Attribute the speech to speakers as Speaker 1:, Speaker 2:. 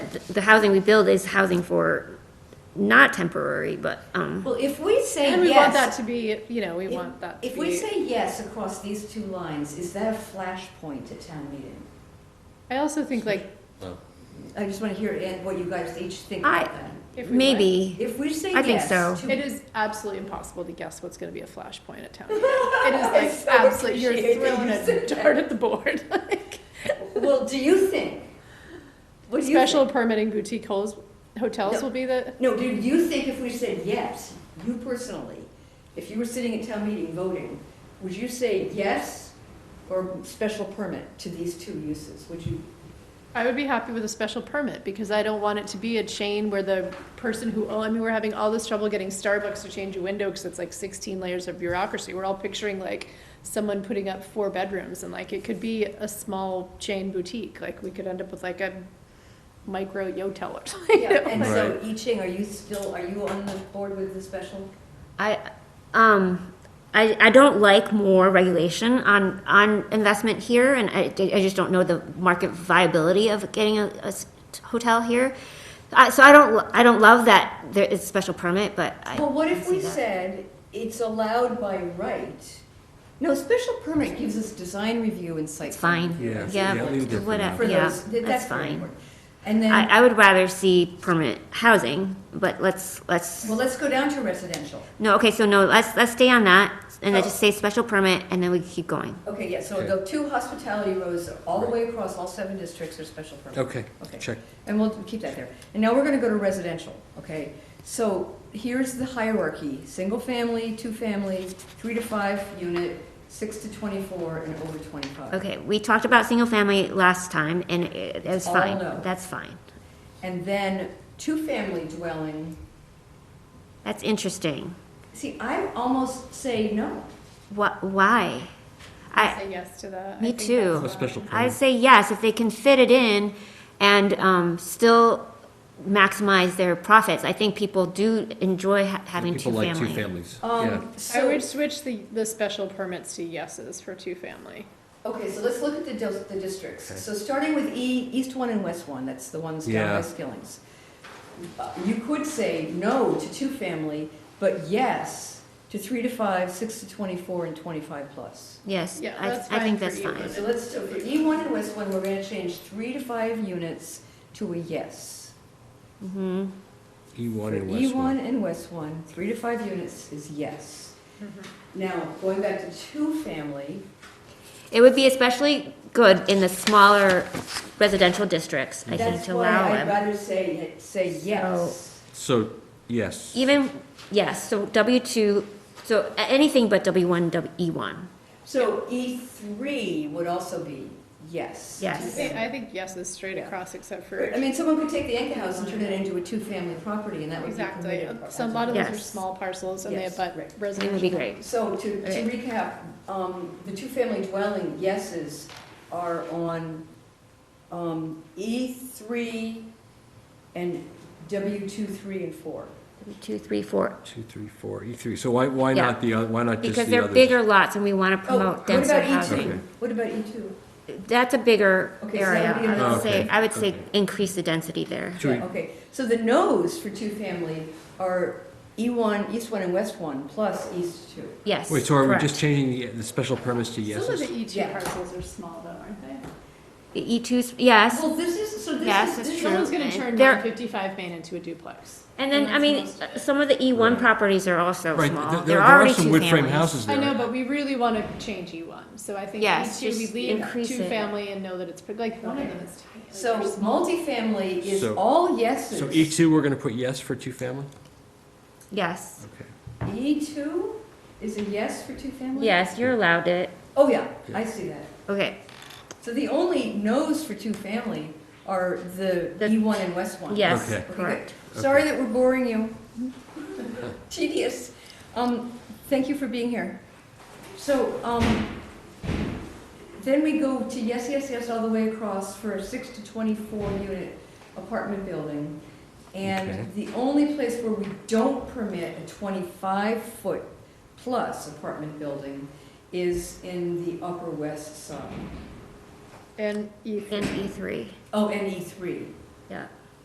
Speaker 1: that th- the housing we build is housing for not temporary, but, um,
Speaker 2: Well, if we say yes.
Speaker 3: And we want that to be, you know, we
Speaker 2: if-
Speaker 3: want that to be.
Speaker 2: If we say yes across these two lines, is that a flashpoint at town meeting?
Speaker 3: I also think like,
Speaker 2: I just want to hear Ed, what you guys each think
Speaker 1: I-
Speaker 2: about that.
Speaker 3: if we. like-
Speaker 1: maybe.
Speaker 2: If we say
Speaker 1: I think
Speaker 2: yes
Speaker 1: so.
Speaker 2: to
Speaker 3: It is absolutely impossible to guess what's gonna be a flashpoint at town meeting. It is like absolutely, you're
Speaker 2: appreciate that
Speaker 3: throwing
Speaker 2: you
Speaker 3: a
Speaker 2: said that.
Speaker 3: dart at the board, like.
Speaker 2: Well, do you think? What do you
Speaker 3: Special
Speaker 2: think?
Speaker 3: permitting boutique hotels, hotels
Speaker 2: No.
Speaker 3: will be the,
Speaker 2: No, do you think if we said yes, you personally, if you were sitting at town meeting voting, would you say yes or special permit to these two uses? Would you?
Speaker 3: I would be happy with a special permit, because I don't want it to be a chain where the person who, oh, I mean, we're having all this trouble getting Starbucks to change a window, because it's like sixteen layers of bureaucracy, we're all picturing like someone putting up four bedrooms, and like, it could be a small chain boutique, like, we could end up with like a micro Yotel or something. you know,
Speaker 2: And
Speaker 3: like-
Speaker 2: so, I Ching, are you still, are you on the board with the special?
Speaker 1: I, um, I, I don't like more regulation on, on investment here, and I, I just don't know the market viability of getting a, a s- hotel here. I, so I don't, lo- I don't love that there is special permit, but I.
Speaker 2: Well, what if
Speaker 1: I see
Speaker 2: we
Speaker 1: that.
Speaker 2: said it's allowed by right? No, special permit gives us design review and site.
Speaker 1: It's fine.
Speaker 4: Yeah,
Speaker 1: Yeah,
Speaker 4: yeah, leave it for
Speaker 1: what,
Speaker 4: now.
Speaker 2: For
Speaker 1: yeah,
Speaker 2: those, that-
Speaker 1: that's
Speaker 2: that's very
Speaker 1: fine.
Speaker 2: important. And then,
Speaker 1: I, I would rather see permanent housing, but let's, let's,
Speaker 2: well, let's go down to residential.
Speaker 1: no, okay, so no, let's, let's stay on that, and then
Speaker 2: Oh.
Speaker 1: just say special permit, and then we keep going.
Speaker 2: Okay, yeah, so
Speaker 4: Okay.
Speaker 2: the two hospitality rows are all the way across, all seven districts are special permit.
Speaker 4: Okay,
Speaker 2: Okay.
Speaker 4: check.
Speaker 2: And we'll keep that there. And now we're gonna go to residential, okay? So here's the hierarchy, single family, two family, three to five unit, six to twenty-four, and over twenty-five.
Speaker 1: Okay, we talked about single family last time, and it it was
Speaker 2: All
Speaker 1: fine,
Speaker 2: no.
Speaker 1: that's fine.
Speaker 2: And then two-family dwelling,
Speaker 1: That's interesting.
Speaker 2: see, I almost say no.
Speaker 1: What, why?
Speaker 3: I
Speaker 1: I,
Speaker 3: say yes to that. I
Speaker 1: Me
Speaker 3: think
Speaker 1: too.
Speaker 3: that's
Speaker 4: A special
Speaker 3: fine.
Speaker 1: I'd
Speaker 4: permit.
Speaker 1: say yes, if they can fit it in and, um, still maximize their profits. I think people do enjoy ha- having two
Speaker 4: People
Speaker 1: family.
Speaker 4: like two families, yeah.
Speaker 2: Um,
Speaker 3: I
Speaker 2: so-
Speaker 3: would switch the, the special permits to yeses for two-family.
Speaker 2: Okay, so let's look at the, dis- the districts.
Speaker 4: Okay.
Speaker 2: So starting with E, East One and West One, that's the ones down by
Speaker 4: Yeah.
Speaker 2: Skilling's. Uh, You could say no to two-family, but yes to three to five, six to twenty-four, and twenty-five plus.
Speaker 1: Yes,
Speaker 3: Yeah, that's
Speaker 1: I, I
Speaker 3: fine
Speaker 1: think
Speaker 3: for
Speaker 1: that's
Speaker 3: you,
Speaker 1: fine.
Speaker 2: So let's, so for E One and West One, we're gonna change three to five units to a yes.
Speaker 1: hmm
Speaker 4: E1 and
Speaker 2: For
Speaker 4: West
Speaker 2: E1
Speaker 4: One.
Speaker 2: E and West 1, three to five units is yes.
Speaker 3: Mm-hmm.
Speaker 2: Now, going back to two-family,
Speaker 1: It would be especially good in the smaller residential districts, I think,
Speaker 2: that's
Speaker 1: to
Speaker 2: why
Speaker 1: allow
Speaker 2: I'd
Speaker 1: them.
Speaker 2: rather say, say yes.
Speaker 4: So, yes.
Speaker 1: Even, yes, so W two, so a- anything but W one, W, E one.
Speaker 2: So E3 would also be yes.
Speaker 3: I
Speaker 1: Yes.
Speaker 3: think, I think yeses straight
Speaker 2: Yeah.
Speaker 3: across except for,
Speaker 2: I mean, someone could take the Anchor House and turn it into a two-family property, and that would be
Speaker 3: exactly.
Speaker 2: permitted.
Speaker 3: So a lot of those are
Speaker 1: Yes.
Speaker 3: small parcels and they
Speaker 2: Yes,
Speaker 3: abut
Speaker 2: right.
Speaker 3: residential.
Speaker 1: It would be great.
Speaker 2: So to to
Speaker 1: Okay.
Speaker 2: recap, um, the two-family dwelling yeses are on um, E3 and W2, 3, and 4.
Speaker 1: W two, three, four,
Speaker 4: Two, three, four, E three. So why, why
Speaker 1: Yeah.
Speaker 4: not the, oth- why not just the
Speaker 1: because
Speaker 4: others?
Speaker 1: they're bigger lots and we want to
Speaker 2: Oh,
Speaker 1: promote
Speaker 2: what
Speaker 1: denser
Speaker 2: about E2?
Speaker 4: Okay.
Speaker 1: housing.
Speaker 2: What about E E2?
Speaker 1: That's a bigger
Speaker 2: Okay, so that
Speaker 1: area.
Speaker 2: would be
Speaker 1: I
Speaker 2: another-
Speaker 1: would say,
Speaker 4: Okay,
Speaker 1: I would say
Speaker 4: okay.
Speaker 1: increase the density there.
Speaker 4: Should we-
Speaker 2: Yeah, okay, so the no's for two-family are E1, East 1 and West 1, plus East 2.
Speaker 1: Yes,
Speaker 4: Wait, so are we
Speaker 1: correct.
Speaker 4: just changing the, the special permits to
Speaker 3: Some of
Speaker 4: yeses?
Speaker 3: the E two
Speaker 2: Yeah.
Speaker 3: parcels are small though, aren't they?
Speaker 1: E two's, yes,
Speaker 2: Well, this is, so
Speaker 1: Yes,
Speaker 2: this
Speaker 1: it's
Speaker 2: is,
Speaker 1: true.
Speaker 2: this
Speaker 3: Someone's gonna
Speaker 1: and
Speaker 3: turn
Speaker 1: they're-
Speaker 3: one fifty-five Main into a duplex.
Speaker 1: and then, I
Speaker 3: that's
Speaker 1: mean,
Speaker 3: most of it.
Speaker 1: some of the E one
Speaker 4: Right.
Speaker 1: properties are also
Speaker 4: Right,
Speaker 1: small.
Speaker 4: there-
Speaker 1: There
Speaker 4: there
Speaker 1: are already
Speaker 4: some
Speaker 1: two
Speaker 4: wood frame
Speaker 1: families.
Speaker 4: houses
Speaker 3: I
Speaker 4: there.
Speaker 3: know, but we really wanna change E one, so I think E
Speaker 1: Yes,
Speaker 3: two, we
Speaker 1: just
Speaker 3: leave
Speaker 1: increase it.
Speaker 3: two family and know that it's, pre- like, one of them is tiny. like,
Speaker 2: so
Speaker 3: they're small.
Speaker 2: multifamily is
Speaker 4: So-
Speaker 2: all yeses.
Speaker 4: So E two, we're gonna put yes for two family?
Speaker 1: Yes,
Speaker 4: Okay.
Speaker 2: E2 E is a yes for two-family?
Speaker 1: yes, you're allowed it.
Speaker 2: Oh, yeah, I see that.
Speaker 1: Okay,
Speaker 2: So the only no's for two-family are the
Speaker 1: The-
Speaker 2: E1 and West 1.
Speaker 1: yes,
Speaker 4: Okay.
Speaker 2: Okay,
Speaker 1: correct.
Speaker 2: good. Sorry that we're boring you. Tedious. Um, Thank you for being here. So um, then we go to yes, yes, yes, all the way across for a 6 to 24 unit apartment building.
Speaker 4: Okay.
Speaker 2: And the only place where we don't permit a 25-foot plus apartment building is in the Upper West Side.
Speaker 3: And E
Speaker 1: And E three,
Speaker 2: Oh, and E3.
Speaker 1: yeah.